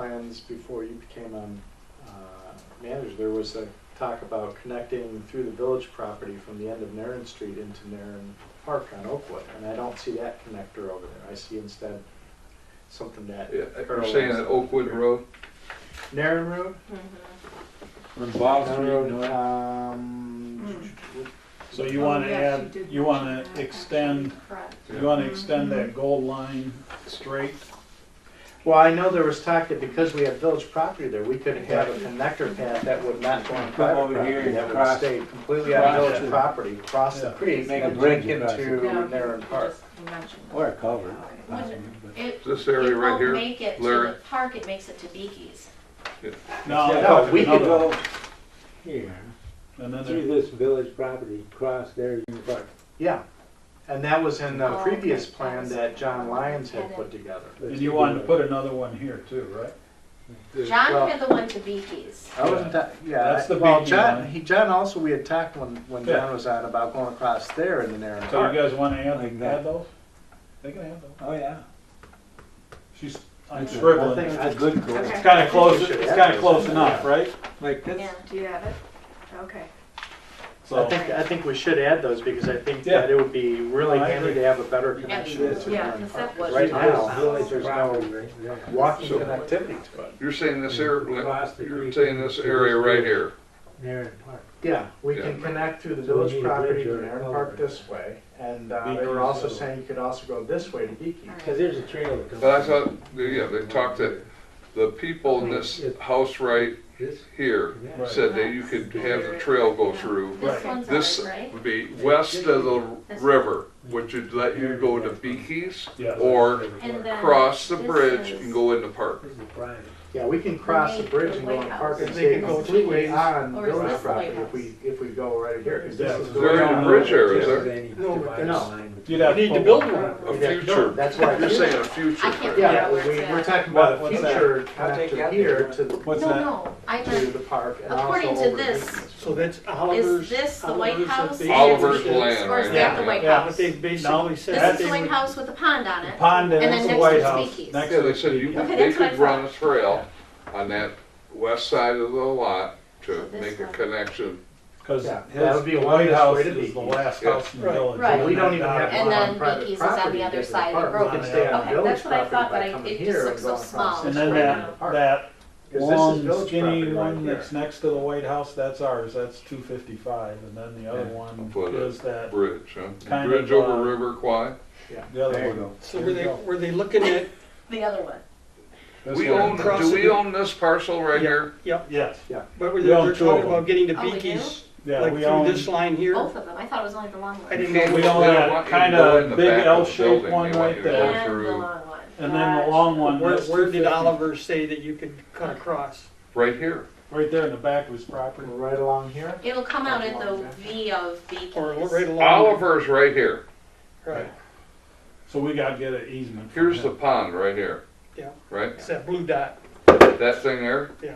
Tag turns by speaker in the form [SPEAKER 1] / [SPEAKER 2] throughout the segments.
[SPEAKER 1] plans before you became um, uh, manager, there was a talk about connecting through the village property from the end of Narren Street into Narren Park on Oakwood, and I don't see that connector over there. I see instead something that
[SPEAKER 2] Yeah, You're
[SPEAKER 1] parallels
[SPEAKER 2] saying at Oakwood Road?
[SPEAKER 1] Narren Road?
[SPEAKER 3] Mm-hmm,
[SPEAKER 4] On Bob Street,
[SPEAKER 1] Narren Road,
[SPEAKER 4] no.
[SPEAKER 1] um,
[SPEAKER 4] So you
[SPEAKER 5] Oh,
[SPEAKER 4] wanna
[SPEAKER 5] yes,
[SPEAKER 4] add,
[SPEAKER 5] did
[SPEAKER 4] you wanna
[SPEAKER 5] mention that.
[SPEAKER 4] extend,
[SPEAKER 5] Correct.
[SPEAKER 4] you wanna extend that gold line straight?
[SPEAKER 1] Well, I know there was talk that because we have village property there, we could have a connector path that would not go on private
[SPEAKER 6] over here
[SPEAKER 1] property,
[SPEAKER 6] and
[SPEAKER 1] that would
[SPEAKER 6] cross-
[SPEAKER 1] stay completely on
[SPEAKER 6] cross
[SPEAKER 1] village
[SPEAKER 6] it.
[SPEAKER 1] property, cross the
[SPEAKER 4] Yeah.
[SPEAKER 1] creek,
[SPEAKER 6] Make a
[SPEAKER 1] and
[SPEAKER 6] bridge
[SPEAKER 1] link into
[SPEAKER 6] across it.
[SPEAKER 1] Narren Park.
[SPEAKER 6] Or a culvert.
[SPEAKER 3] Would It,
[SPEAKER 2] This
[SPEAKER 3] it
[SPEAKER 2] area right
[SPEAKER 3] won't
[SPEAKER 2] here?
[SPEAKER 3] make it to
[SPEAKER 2] Larry.
[SPEAKER 3] the park, it makes it to Beaky's.
[SPEAKER 4] No,
[SPEAKER 1] Yeah,
[SPEAKER 4] I'm
[SPEAKER 1] no,
[SPEAKER 4] talking
[SPEAKER 1] we could
[SPEAKER 4] another one.
[SPEAKER 6] Oh, Go here,
[SPEAKER 4] And then
[SPEAKER 6] through
[SPEAKER 4] there-
[SPEAKER 6] this village property, cross there, you can park.
[SPEAKER 1] Yeah, and that was in the
[SPEAKER 3] Oh,
[SPEAKER 1] previous
[SPEAKER 3] okay.
[SPEAKER 1] plan that John Lyons had
[SPEAKER 3] Had it.
[SPEAKER 1] put together.
[SPEAKER 4] and you wanted to put another one here too, right?
[SPEAKER 1] Well-
[SPEAKER 3] John had the one to Beaky's.
[SPEAKER 1] I wasn't, ta- yeah,
[SPEAKER 4] That's
[SPEAKER 1] I-
[SPEAKER 4] the
[SPEAKER 1] well,
[SPEAKER 4] biggie
[SPEAKER 1] John,
[SPEAKER 4] one.
[SPEAKER 1] he, John also, we had talked when, when
[SPEAKER 4] Yeah.
[SPEAKER 1] John was on about going across there in the Narren
[SPEAKER 4] So you
[SPEAKER 1] Park.
[SPEAKER 4] guys wanna add,
[SPEAKER 6] Like that.
[SPEAKER 4] add those? They can add those.
[SPEAKER 6] Oh, yeah.
[SPEAKER 4] She's, I'm
[SPEAKER 6] That's a-
[SPEAKER 4] scribbling.
[SPEAKER 1] I
[SPEAKER 6] That's a good goal.
[SPEAKER 5] Okay.
[SPEAKER 4] It's kinda close, it's kinda close enough, right?
[SPEAKER 6] Like
[SPEAKER 3] Yeah.
[SPEAKER 6] this,
[SPEAKER 5] Do you have it? Okay.
[SPEAKER 1] I
[SPEAKER 4] So,
[SPEAKER 1] think, I think we should add those, because I think
[SPEAKER 4] Yeah.
[SPEAKER 1] that it would be really
[SPEAKER 4] No, I
[SPEAKER 1] handy
[SPEAKER 4] agree.
[SPEAKER 1] to have a better connection
[SPEAKER 3] Yeah,
[SPEAKER 1] to
[SPEAKER 5] yeah,
[SPEAKER 1] Narren
[SPEAKER 5] 'cause
[SPEAKER 1] Park.
[SPEAKER 5] that was-
[SPEAKER 1] Right
[SPEAKER 6] this
[SPEAKER 1] now,
[SPEAKER 6] village
[SPEAKER 1] there's no
[SPEAKER 6] property right there.
[SPEAKER 1] walking
[SPEAKER 2] So-
[SPEAKER 1] connectivity to it.
[SPEAKER 2] You're saying this area,
[SPEAKER 6] Across the
[SPEAKER 2] you're
[SPEAKER 6] creek.
[SPEAKER 2] saying this area right here?
[SPEAKER 6] Narren Park.
[SPEAKER 1] Yeah, we
[SPEAKER 2] Yeah.
[SPEAKER 1] can connect through the
[SPEAKER 6] So we
[SPEAKER 1] village
[SPEAKER 6] need a
[SPEAKER 1] property
[SPEAKER 6] bridge
[SPEAKER 1] to
[SPEAKER 6] or a
[SPEAKER 1] Narren
[SPEAKER 6] culvert.
[SPEAKER 1] Park this way, and, uh, they
[SPEAKER 4] Beaky's,
[SPEAKER 1] were also
[SPEAKER 4] so-
[SPEAKER 1] saying you could also go this way to Beaky.
[SPEAKER 6] Cause there's a trail that comes.
[SPEAKER 2] But I thought, yeah, they talked that the people in this house right
[SPEAKER 6] This,
[SPEAKER 2] here
[SPEAKER 6] yeah.
[SPEAKER 4] Right.
[SPEAKER 2] said that you could have the trail go through.
[SPEAKER 3] This one's
[SPEAKER 2] This
[SPEAKER 3] ours, right?
[SPEAKER 2] would be west of the river, which would let you go to Beekys
[SPEAKER 4] yeah.
[SPEAKER 2] or
[SPEAKER 3] And then
[SPEAKER 2] cross the
[SPEAKER 3] this
[SPEAKER 2] bridge
[SPEAKER 3] is-
[SPEAKER 2] and go in the park.
[SPEAKER 6] This is private.
[SPEAKER 1] Yeah, we can cross the
[SPEAKER 3] Wait,
[SPEAKER 1] bridge and
[SPEAKER 3] the
[SPEAKER 1] go in the park and
[SPEAKER 3] lighthouse.
[SPEAKER 1] stay
[SPEAKER 7] They can go
[SPEAKER 1] completely
[SPEAKER 7] two ways.
[SPEAKER 1] on
[SPEAKER 3] Or is
[SPEAKER 1] village
[SPEAKER 3] this the
[SPEAKER 1] property if
[SPEAKER 3] lighthouse?
[SPEAKER 1] we, if we go right here. 'cause
[SPEAKER 4] Yeah.
[SPEAKER 1] this is
[SPEAKER 2] Where
[SPEAKER 1] going
[SPEAKER 2] in
[SPEAKER 1] on-
[SPEAKER 2] the bridge area is
[SPEAKER 6] Just
[SPEAKER 2] there?
[SPEAKER 6] any
[SPEAKER 7] No, but
[SPEAKER 6] divided
[SPEAKER 1] no.
[SPEAKER 6] line with-
[SPEAKER 4] You'd have
[SPEAKER 7] We need to
[SPEAKER 4] pull-
[SPEAKER 7] build one.
[SPEAKER 2] A
[SPEAKER 1] Yeah, no,
[SPEAKER 2] future,
[SPEAKER 1] That's why.
[SPEAKER 2] you're saying a future
[SPEAKER 3] I can't
[SPEAKER 2] bridge.
[SPEAKER 3] remember
[SPEAKER 1] Yeah, we,
[SPEAKER 3] where it's
[SPEAKER 1] we're
[SPEAKER 3] at.
[SPEAKER 1] talking about
[SPEAKER 4] What- what's that?
[SPEAKER 1] future
[SPEAKER 6] I'll take
[SPEAKER 1] connector
[SPEAKER 6] that.
[SPEAKER 1] here to the,
[SPEAKER 4] What's
[SPEAKER 3] No,
[SPEAKER 4] that?
[SPEAKER 3] no, I
[SPEAKER 1] to
[SPEAKER 3] meant,
[SPEAKER 1] the park and also
[SPEAKER 3] according
[SPEAKER 1] over.
[SPEAKER 3] to this,
[SPEAKER 7] So that's
[SPEAKER 3] is
[SPEAKER 7] Oliver's.
[SPEAKER 3] this the
[SPEAKER 7] Oliver's
[SPEAKER 3] White
[SPEAKER 7] at
[SPEAKER 3] House?
[SPEAKER 7] the-
[SPEAKER 3] and-
[SPEAKER 2] Oliver's land
[SPEAKER 3] Or is
[SPEAKER 2] right
[SPEAKER 3] that
[SPEAKER 2] there.
[SPEAKER 3] the White
[SPEAKER 4] Yeah,
[SPEAKER 7] What
[SPEAKER 3] House?
[SPEAKER 7] they
[SPEAKER 4] No,
[SPEAKER 7] basically
[SPEAKER 3] This is
[SPEAKER 7] said,
[SPEAKER 3] the White House with the pond on
[SPEAKER 4] The
[SPEAKER 3] it.
[SPEAKER 4] pond and
[SPEAKER 3] And then
[SPEAKER 4] that's the
[SPEAKER 3] next
[SPEAKER 4] White
[SPEAKER 3] to the
[SPEAKER 4] House.
[SPEAKER 3] speakeasy.
[SPEAKER 4] Next
[SPEAKER 2] Yeah,
[SPEAKER 4] to
[SPEAKER 2] they
[SPEAKER 4] the
[SPEAKER 2] said you,
[SPEAKER 4] speakeasy.
[SPEAKER 3] Okay,
[SPEAKER 2] they
[SPEAKER 3] that's what I
[SPEAKER 2] could run a
[SPEAKER 3] thought.
[SPEAKER 2] trail on that west side of the lot to
[SPEAKER 3] This
[SPEAKER 2] make a
[SPEAKER 3] one.
[SPEAKER 2] connection.
[SPEAKER 4] Cause
[SPEAKER 1] Yeah, that
[SPEAKER 4] his-
[SPEAKER 1] would be
[SPEAKER 4] the
[SPEAKER 1] a
[SPEAKER 4] White
[SPEAKER 1] wonderful
[SPEAKER 4] House
[SPEAKER 1] way to be.
[SPEAKER 4] is the last
[SPEAKER 2] Yeah.
[SPEAKER 4] house in the
[SPEAKER 7] Right.
[SPEAKER 4] village.
[SPEAKER 3] Right.
[SPEAKER 4] on
[SPEAKER 1] We don't
[SPEAKER 4] that
[SPEAKER 1] even have
[SPEAKER 4] dotted
[SPEAKER 3] And
[SPEAKER 1] one
[SPEAKER 4] line.
[SPEAKER 1] on
[SPEAKER 3] then
[SPEAKER 1] private
[SPEAKER 3] Mickey's is on the
[SPEAKER 1] property
[SPEAKER 3] other
[SPEAKER 1] into
[SPEAKER 3] side of the
[SPEAKER 1] park.
[SPEAKER 3] road.
[SPEAKER 1] We can stay on
[SPEAKER 3] Okay,
[SPEAKER 1] village
[SPEAKER 3] that's what I
[SPEAKER 1] property
[SPEAKER 3] thought, but
[SPEAKER 1] by
[SPEAKER 3] I-
[SPEAKER 1] coming
[SPEAKER 3] it just
[SPEAKER 1] here and
[SPEAKER 3] looks so
[SPEAKER 1] going across
[SPEAKER 3] small.
[SPEAKER 1] the
[SPEAKER 4] And
[SPEAKER 1] street.
[SPEAKER 4] then that, that
[SPEAKER 1] Because this is
[SPEAKER 4] long
[SPEAKER 1] village property
[SPEAKER 4] skinny
[SPEAKER 1] right
[SPEAKER 4] one
[SPEAKER 1] here.
[SPEAKER 4] that's next to the White House, that's ours, that's two fifty-five, and then the other one
[SPEAKER 2] Put it.
[SPEAKER 4] is that,
[SPEAKER 2] Bridge, huh?
[SPEAKER 4] Kind
[SPEAKER 2] Bridge
[SPEAKER 4] of, uh,
[SPEAKER 2] over River Kwai.
[SPEAKER 4] the
[SPEAKER 6] There
[SPEAKER 4] other
[SPEAKER 6] you
[SPEAKER 4] one.
[SPEAKER 6] go.
[SPEAKER 7] so were they, were they looking at,
[SPEAKER 3] The other one.
[SPEAKER 4] This
[SPEAKER 2] We
[SPEAKER 4] one.
[SPEAKER 2] own, do we own this parcel right
[SPEAKER 7] Yeah.
[SPEAKER 2] here?
[SPEAKER 7] yep,
[SPEAKER 4] Yes,
[SPEAKER 7] but were they,
[SPEAKER 4] We own
[SPEAKER 7] they're
[SPEAKER 4] two of
[SPEAKER 7] talking
[SPEAKER 4] them.
[SPEAKER 7] about getting to
[SPEAKER 3] Oh, we do?
[SPEAKER 7] Beekys,
[SPEAKER 4] yeah,
[SPEAKER 7] like
[SPEAKER 4] we
[SPEAKER 7] through
[SPEAKER 4] own,
[SPEAKER 7] this line here?
[SPEAKER 3] Both of them. I thought it was only the long
[SPEAKER 7] I
[SPEAKER 3] one.
[SPEAKER 7] didn't
[SPEAKER 2] They
[SPEAKER 7] know.
[SPEAKER 2] don't
[SPEAKER 4] we
[SPEAKER 7] which-
[SPEAKER 4] own
[SPEAKER 2] want
[SPEAKER 4] that
[SPEAKER 2] you to
[SPEAKER 4] kinda
[SPEAKER 2] go in the
[SPEAKER 4] big
[SPEAKER 2] back of the
[SPEAKER 4] L-shaped
[SPEAKER 2] building. They
[SPEAKER 4] one
[SPEAKER 2] want
[SPEAKER 4] right
[SPEAKER 2] you to go
[SPEAKER 4] there.
[SPEAKER 3] And the
[SPEAKER 2] through
[SPEAKER 3] long one.
[SPEAKER 4] and then the
[SPEAKER 3] Gosh.
[SPEAKER 4] long one,
[SPEAKER 7] Where,
[SPEAKER 4] that's
[SPEAKER 7] where
[SPEAKER 4] two
[SPEAKER 7] did
[SPEAKER 4] fifty,
[SPEAKER 7] Oliver say that you could cut across?
[SPEAKER 2] Right here.
[SPEAKER 4] right there in the back of his property.
[SPEAKER 1] Right along here?
[SPEAKER 3] It'll come out at the V of
[SPEAKER 7] Or
[SPEAKER 3] Beaky's.
[SPEAKER 7] right along?
[SPEAKER 2] Oliver's right here.
[SPEAKER 7] Right,
[SPEAKER 4] So we gotta get an easement. from
[SPEAKER 2] Here's the
[SPEAKER 4] him.
[SPEAKER 2] pond right here.
[SPEAKER 7] Yeah.
[SPEAKER 2] Right?
[SPEAKER 7] it's that blue dot,
[SPEAKER 2] That thing there?
[SPEAKER 7] yeah.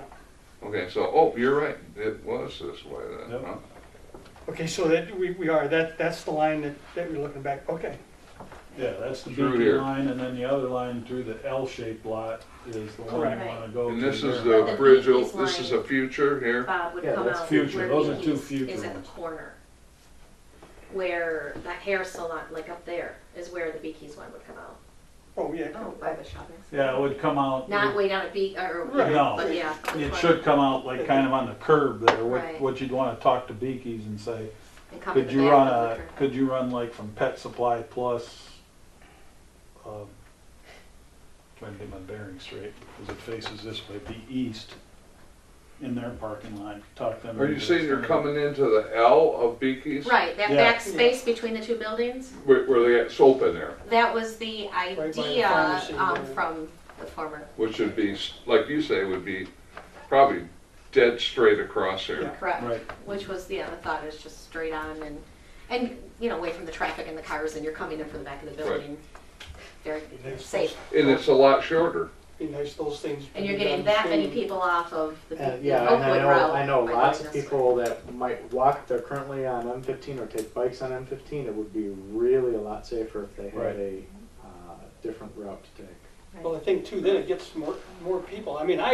[SPEAKER 2] Okay, so, oh, you're right. It was this way then,
[SPEAKER 4] Yep.
[SPEAKER 2] huh?
[SPEAKER 7] Okay, so that, we, we are, that, that's the line that, that we're looking back, okay.
[SPEAKER 4] Yeah, that's the
[SPEAKER 2] Through
[SPEAKER 4] beaky
[SPEAKER 2] here.
[SPEAKER 4] line, and then the other line through the L-shaped lot is the one you
[SPEAKER 7] Correct.
[SPEAKER 4] wanna go to.
[SPEAKER 2] And this is
[SPEAKER 4] there.
[SPEAKER 3] But
[SPEAKER 2] the
[SPEAKER 3] the
[SPEAKER 2] bridge, o-
[SPEAKER 3] Beekys
[SPEAKER 2] this
[SPEAKER 3] line-
[SPEAKER 2] is a future here.
[SPEAKER 3] Bob would
[SPEAKER 1] Yeah,
[SPEAKER 3] come
[SPEAKER 1] that's
[SPEAKER 3] out.
[SPEAKER 4] future.
[SPEAKER 3] where
[SPEAKER 4] Those are two
[SPEAKER 3] Mickey's
[SPEAKER 4] future
[SPEAKER 3] Is at the
[SPEAKER 4] ones.
[SPEAKER 3] corner. Where the hair salon, like up there, is where the Beaky's one would come out.
[SPEAKER 7] Oh, yeah,
[SPEAKER 3] Oh, by the shopping. center.
[SPEAKER 4] Yeah, it would come out.
[SPEAKER 3] Not way down at Beak, or,
[SPEAKER 7] Right.
[SPEAKER 4] No.
[SPEAKER 3] but yeah.
[SPEAKER 4] It should come out like kind of on the curb there, what,
[SPEAKER 3] Right.
[SPEAKER 4] what you'd wanna talk to Beekys and say,
[SPEAKER 3] And come to
[SPEAKER 4] could
[SPEAKER 3] the
[SPEAKER 4] you
[SPEAKER 3] back
[SPEAKER 4] run
[SPEAKER 3] of the
[SPEAKER 4] a,
[SPEAKER 3] curb.
[SPEAKER 4] could you run like from Pet Supply Plus, um, trying to get my bearings straight, because it faces this way, be east in their parking lot, talk them.
[SPEAKER 2] Are you
[SPEAKER 4] into
[SPEAKER 2] saying you're
[SPEAKER 4] extending-
[SPEAKER 2] coming into the L of Beekys?
[SPEAKER 3] Right, that
[SPEAKER 4] Yeah.
[SPEAKER 3] back space between the two buildings,
[SPEAKER 2] Where, where they got soap in there,
[SPEAKER 3] that was the
[SPEAKER 7] by the
[SPEAKER 3] idea,
[SPEAKER 7] pharmacy
[SPEAKER 3] um,
[SPEAKER 7] there.
[SPEAKER 3] from the former,
[SPEAKER 2] which would be, s- like you say, would be probably dead straight across here.
[SPEAKER 4] Right.
[SPEAKER 3] correct? Which was, yeah, the thought is just straight on and, and, you know, away from the traffic and the cars and you're coming in from the back of the building. Very
[SPEAKER 7] Next
[SPEAKER 3] safe,
[SPEAKER 2] And it's a lot shorter.
[SPEAKER 7] be nice, those things.
[SPEAKER 3] and you're getting that many people off of the the
[SPEAKER 1] And, Uh, yeah, and I
[SPEAKER 3] Oakwood
[SPEAKER 1] know,
[SPEAKER 3] Route.
[SPEAKER 1] I know
[SPEAKER 3] by
[SPEAKER 1] lots
[SPEAKER 3] going
[SPEAKER 1] of
[SPEAKER 3] this way.
[SPEAKER 1] people that might walk, they're currently on M fifteen or take bikes on M fifteen, it would be really a lot safer if they
[SPEAKER 4] Right.
[SPEAKER 1] had a, uh, different route to take.
[SPEAKER 7] Well, I think too, then it gets more, more people. I mean, I